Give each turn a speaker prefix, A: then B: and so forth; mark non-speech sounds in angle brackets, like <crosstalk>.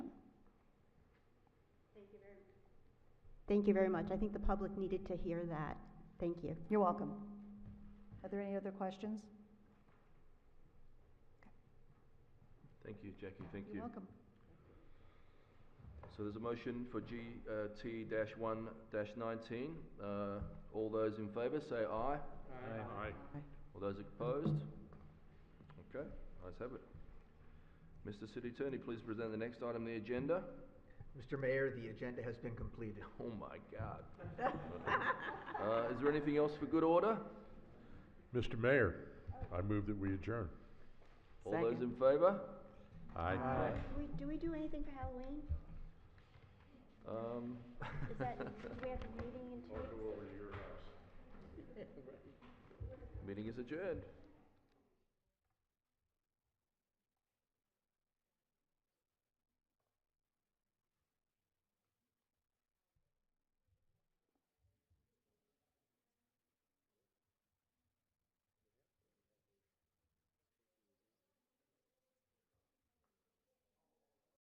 A: Thank you very much. I think the public needed to hear that. Thank you.
B: You're welcome. Are there any other questions?
C: Thank you, Jackie, thank you.
B: You're welcome.
C: So there's a motion for uh, GT-1-19. Uh, All those in favour, say aye.
D: Aye.
C: All those opposed? Okay, ayes have it. Mr City Attorney, please present the next item on the agenda.
E: Mr. Mayor, the agenda has been completed.
C: Oh my God.
B: <laughs>
C: Uh, Is there anything else for good order?
D: Mr. Mayor, I move that we adjourn.
C: All those in favour?
D: Aye.
A: Do we, do we do anything for Halloween?
C: Um,
F: Is that, do we have a meeting in two weeks?
C: Meeting is adjourned.